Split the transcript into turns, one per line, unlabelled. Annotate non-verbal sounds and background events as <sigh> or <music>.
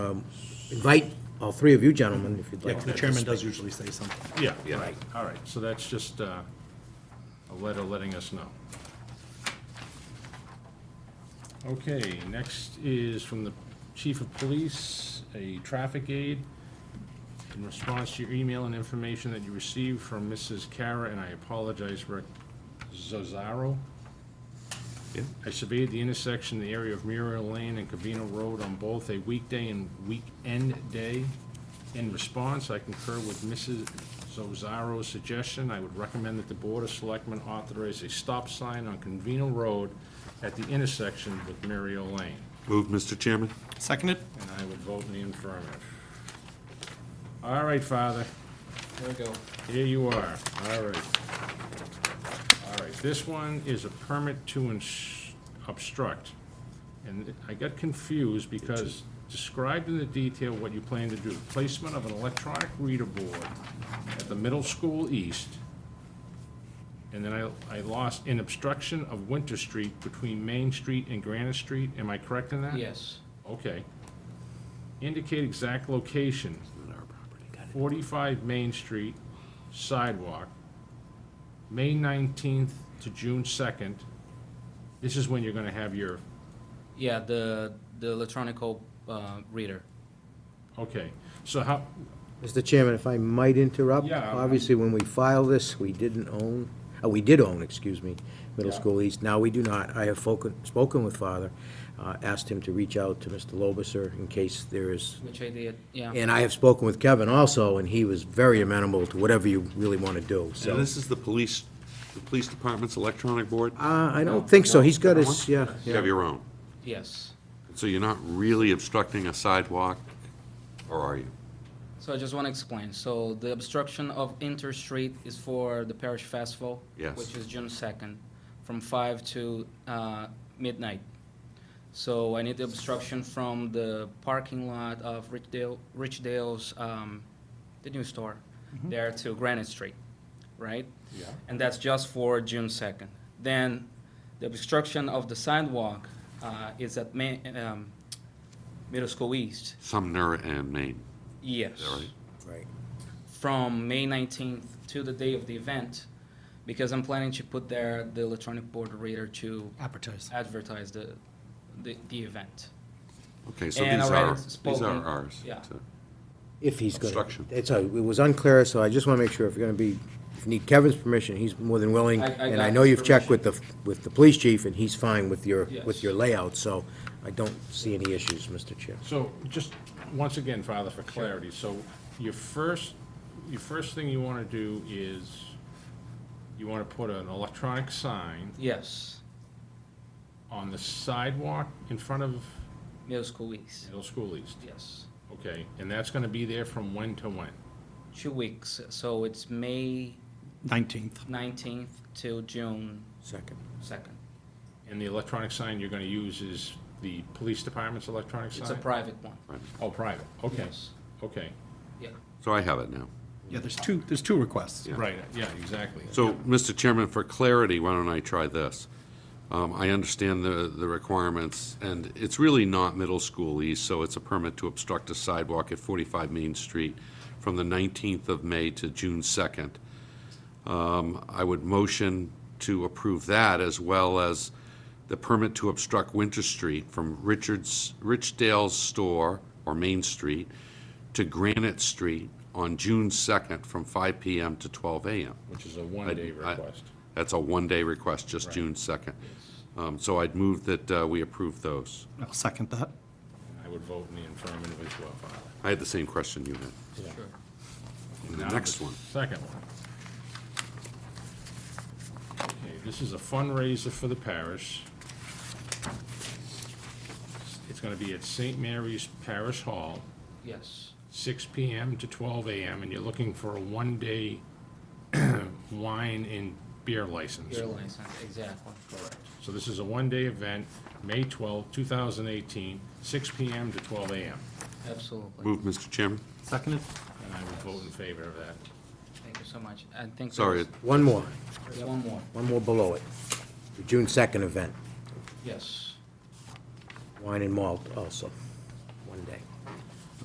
Um, invite all three of you gentlemen, if you'd
Yeah,
like.
'cause the chairman does usually say something.
Yeah,
Yeah.
right, all right, so that's just uh, a letter letting us know. Okay, next is from the chief of police, a traffic aid. In response to your email and information that you received from Mrs. Kara, and I apologize, Rick Zozaro.
Yeah.
I surveyed the intersection, in the area of Muriel Lane and Covina Road on both a weekday and weekend day. In response, I concur with Mrs. Zozaro's suggestion. I would recommend that the Board of Selectmen authorize a stop sign on Covina Road at the intersection with Muriel Lane.
Move, Mr. Chairman?
Seconded?
And I would vote in the affirmative. All right, Father.
There we go.
Here you are, all right. All right, this one is a permit to ins- obstruct. And I got confused because described in the detail what you plan to do. Placement of an electronic reader board at the middle school east. And then I, I lost in obstruction of Winter Street between Main Street and Granite Street. Am I correct in that?
Yes.
Okay. Indicate exact location. Forty-five Main Street sidewalk, May nineteenth to June second. This is when you're gonna have your,
Yeah, the, the electronical, uh, reader.
okay, so how,
Mr. Chairman, if I might interrupt?
Yeah.
Obviously, when we filed this, we didn't own, uh, we did own, excuse me, Middle
Yeah.
School East. Now we do not. I have foken- spoken with Father, uh, asked him to reach out to Mr. Lobiser in case there is
Which I did, yeah.
And I have spoken with Kevin also, and he was very amenable to whatever you really want to do, so.
And this is the police, the police department's electronic board?
Uh, I don't think so, he's got his, yeah,
You have
yeah.
your own.
Yes.
So you're not really obstructing a sidewalk, or are you?
So I just want to explain. So the obstruction of Inter Street is for the parish festival.
Yes.
Which is June second, from five to, uh, midnight. So I need the obstruction from the parking lot of Richdale, Richdale's, um, the new store, there to Granite Street, right?
Yeah.
And that's just for June second. Then the obstruction of the sidewalk, uh, is at Ma- um, Middle School East,
Sumner and Maine,
yes
is that right?
Right.
from May 19th to the day of the event because I'm planning to put there the electronic board reader to
Advertise.
advertise the, the, the event.
Okay, so
And
these
already
are, these
spoken,
are ours.
yeah.
So-
If he's going to.
Obstruction.
It's, a- it was unclear, so I just want to make sure if you're going to be, if you need Kevin's permission, he's more than willing.
I- I
And
got
I know
his
you've checked with the, with the police chief, and he's fine with your, with
Yes.
your layout, so I don't see any issues, Mr. Chair.
so just, once again, Father, for clarity, so your first, your first thing you wanna do is, you wanna put an electronic sign
Yes,
on the sidewalk in front of
middle school weeks.
Middle School East,
Yes,
okay? And that's gonna be there from when to when?
two weeks. So it's May
19th.
19th till June
Second.
2nd.
And the electronic sign you're gonna use is the police department's electronic sign?
It's a private one.
Oh, private, okay,
Yes.
okay.
Yeah.
So I have it now.
Yeah, there's two, there's two requests.
Yeah.
Right, yeah, exactly.
So, Mr. Chairman, for clarity, why don't I try this? Um, I understand the, the requirements, and it's really not middle school east, so it's a permit to obstruct a sidewalk at 45 Main Street from the 19th of May to June 2nd. Um, I would motion to approve that, as well as the permit to obstruct Winter Street from Richards, Richdale's store, or Main Street, to Granite Street on June 2nd from 5 PM to 12 AM.
Which is a one-day
I-
request.
That's a one-day request, just June 2nd. Um, So I'd move that uh, we approve those.
I'll second that.
I would vote in the affirmative as well, Father.
I had the same question you had.
Sure.
And the
Now
next one,
Second one. Okay, this is a fundraiser for the parish. It's gonna be at St. Mary's Parish Hall,
Yes,
six PM to twelve AM, and you're looking for a one-day <clears throat> wine and beer license.
your license, exactly. Correct.
So this is a one-day event, May 12, 2018, 6 PM to 12 AM.
Absolutely.
move, Mr. Chairman?
Seconded?
And I would vote in favor of that.
Thank you so much. I think
Sorry,
there's-
One more,
there's one more.
one more below it. The June second event,
Yes.
wine and malt also, one day.